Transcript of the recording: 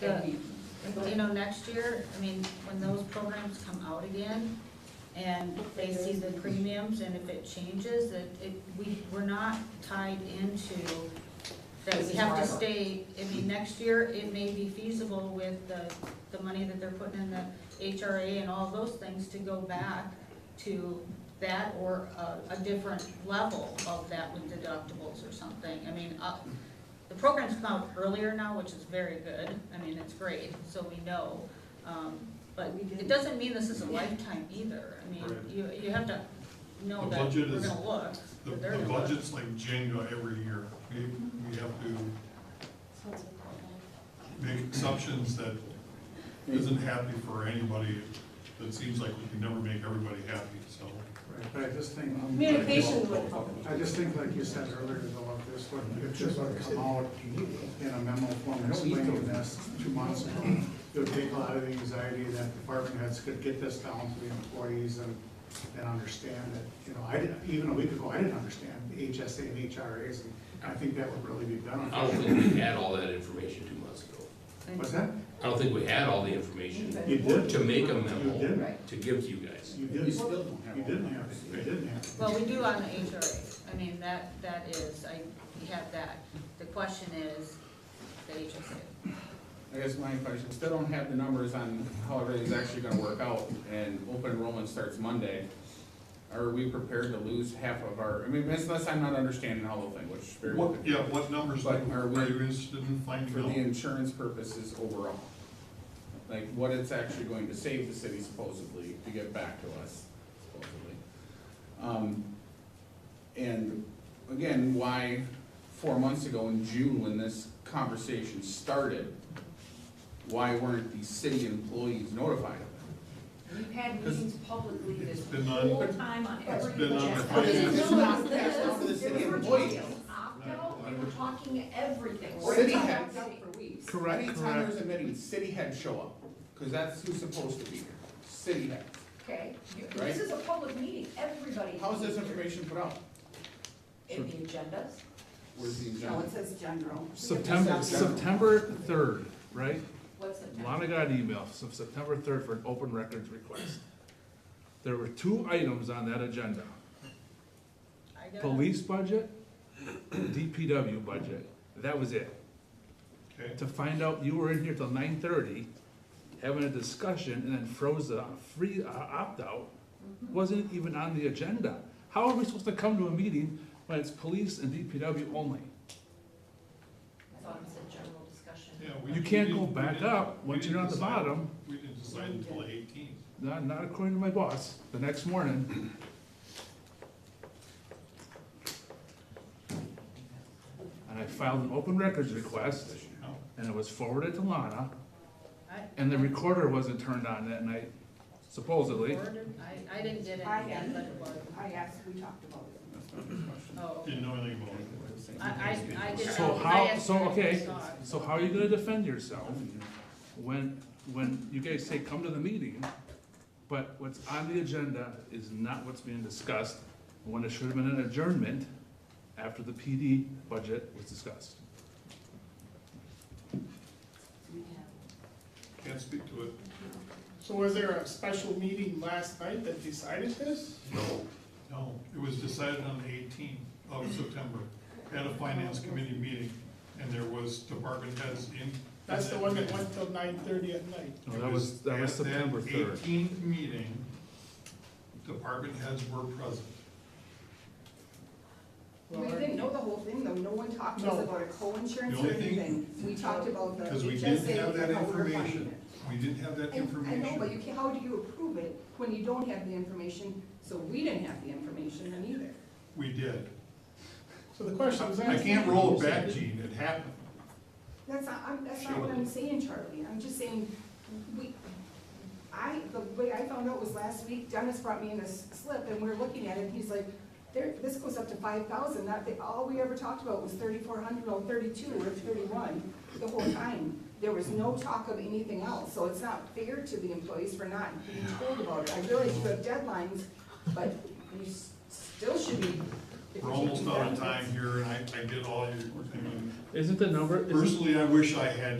the, you know, next year, I mean, when those programs come out again and they see the premiums and if it changes, that it, we, we're not tied into that This is we have forever. to stay, I mean, next year, it may be feasible with the, the money that they're putting in the HRA and all those things to go back to that or a, a different level of that with deductibles or something. I mean, uh, the program's come out earlier now, which is very good. I mean, it's great, so we know. Um, but it doesn't mean this is a lifetime either. I mean, Right. you, you have to know The that budget we're is- gonna look. The, that they're the gonna look. budget's like Jenga every year. We, we have to make exceptions that isn't happy for anybody. It seems like we can never make everybody happy, so. Right, But I just think, um, Communication would help. I just think like you said earlier, though, if this would, if this would come out in a memo form explaining this two months ago, it would take a lot of the anxiety that department heads could get this down to the employees and, and understand it. You know, I didn't, even a week ago, I didn't understand HSA and HRAs, and I think that would really be I don't beneficial. think we had all that information two months ago. What's that? I don't think we had all the information You did, to make a you memo didn't, to give to you guys. you didn't, you didn't have, it. you didn't have. it. Well, we do on the HRA, I mean, that, that is, I, we have that, the question is, the HSA. I guess my question, still don't have the numbers on how everything's actually gonna work out, and open enrollment starts Monday. Are we prepared to lose half of our, I mean, unless I'm not understanding the whole thing, which is very, What, yeah, what numbers But are are we- you interested in for finding the out? insurance purposes overall. Like, what it's actually going to save the city supposedly, to get back to us supposedly. Um, and again, why four months ago in June, when this conversation started, why weren't the city employees notified of it? We've had meetings publicly this It's been on- whole time on every. been on agenda. the finance- No, no, no, That's not the city We were employees. talking opt-out, we were talking everything. City We're had- talking for weeks. Correct, Anytime there's a meeting, city head show up, because that's who's supposed to be here, city head. Okay, You- Right. this is a public meeting, everybody. How is this information put out? In the agendas. Where's the No, it agenda? says general. September, September third, right? What's the? Lana got an email, so September third for an open records request. There were two items on that agenda, I got- police budget, DPW budget, that was it. Okay, To find out, you were in here till nine thirty, having a discussion, and then froze the free, uh, opt-out, wasn't even on the agenda. How are we supposed to come to a meeting when it's police and DPW only? I thought it said general discussion. yeah, we. You can't go we back didn't- up we once didn't you're on the decide- bottom. We didn't decide until eighteen. Not, not according to my boss, the next morning. And I filed an open records request, No. and it was forwarded to Lana, I- and the recorder wasn't turned on that night, supposedly. I, I didn't get I anything, am. but it was, I asked, we talked about it. That's not the question. oh, Didn't know anything about it. I, I, I did. So I how- asked so, her if she okay. saw it. So how are you gonna defend yourself when, when you guys say, come to the meeting, but what's on the agenda is not what's being discussed, when it should have been an adjournment after the PD budget was discussed? Can't speak to it. So was there a special meeting last night that decided this? No. No, it was decided on the eighteenth of September at a finance committee meeting, and there was department heads in. That's the one that went till nine thirty at night. No, that was, that was September third. Eighteenth meeting, department heads were present. We didn't know the whole thing, though, no one talked to us No. about a The co-insurance or only thing- anything. We talked about the Because we didn't have HSA that and how we're funding information, it. we didn't have that And I know, but you information. can, how do you approve it when you don't have the information? So we didn't have the information then either. We did. So the question was asked. I can't roll it back, Gene, it happened. That's not, I'm, that's not what I'm saying, Charlie, I'm just saying, we, I, the way I found out was last week, Dennis brought me in a s- slip, and we're looking at it, and he's like, there, this goes up to five thousand, that, they- all we ever talked about was thirty-four hundred, or thirty-two, or thirty-one, the whole time. There was no talk of anything else, so it's not fair to the employees for not being told about it. I realize you have deadlines, but you s- still should be. if We're you can't almost do out of that, time here, and I, I did all your, I mean, Isn't the number, isn't personally, I wish I had